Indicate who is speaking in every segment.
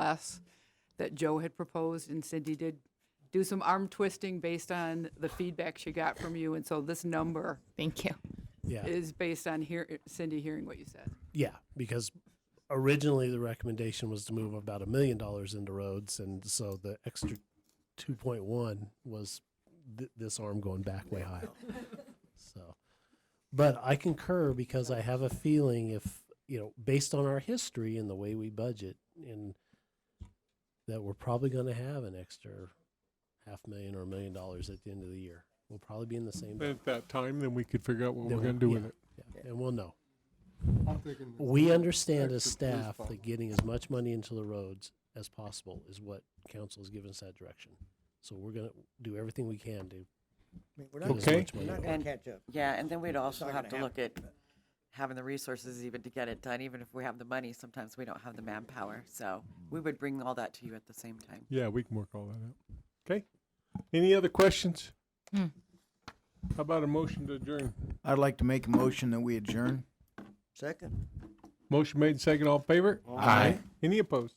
Speaker 1: less that Joe had proposed, and Cindy did do some arm twisting based on the feedback she got from you, and so this number
Speaker 2: Thank you.
Speaker 3: Yeah.
Speaker 1: is based on hear, Cindy hearing what you said.
Speaker 3: Yeah, because originally the recommendation was to move about a million dollars into roads, and so the extra two point one was th- this arm going back way high. so, but I concur because I have a feeling if you know, based on our history and the way we budget, and that we're probably going to have an extra half million or a million dollars at the end of the year. We'll probably be in the same. boat.
Speaker 4: At that time, then we could figure out what
Speaker 3: Then
Speaker 4: we're
Speaker 3: we'll-
Speaker 4: gonna do with
Speaker 3: yeah,
Speaker 4: it.
Speaker 3: yeah, and we'll know.
Speaker 5: I'm thinking that
Speaker 3: We understand as
Speaker 5: extra
Speaker 3: staff
Speaker 5: police
Speaker 3: that getting as much money into the roads as possible is what council has given us that direction. So we're gonna do everything we can to
Speaker 6: I mean, we're
Speaker 3: get
Speaker 6: not
Speaker 3: as
Speaker 4: Okay.
Speaker 6: gonna,
Speaker 3: much
Speaker 6: we're
Speaker 3: money.
Speaker 6: not
Speaker 3: out.
Speaker 6: gonna
Speaker 7: And-
Speaker 6: catch up.
Speaker 7: Yeah, and then we'd also
Speaker 6: not
Speaker 7: have to
Speaker 6: gonna
Speaker 7: look at having the resources even to get it done, even if we have the money, sometimes we don't have the manpower, so we would bring all that to you at the same time.
Speaker 4: Yeah, we can work all that out. Okay. Any other questions?
Speaker 2: Hmm.
Speaker 4: How about a motion to adjourn?
Speaker 8: I'd like to make a motion that we adjourn.
Speaker 6: Second.
Speaker 4: Motion made, second, all in favor?
Speaker 8: Aye.
Speaker 4: Any opposed?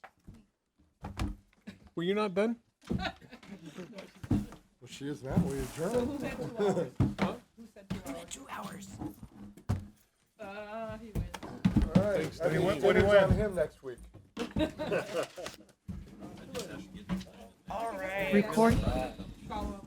Speaker 4: Were you not done?
Speaker 5: Well, she is now, we adjourn. All right, I mean, what, what do you want him next week?
Speaker 2: Record.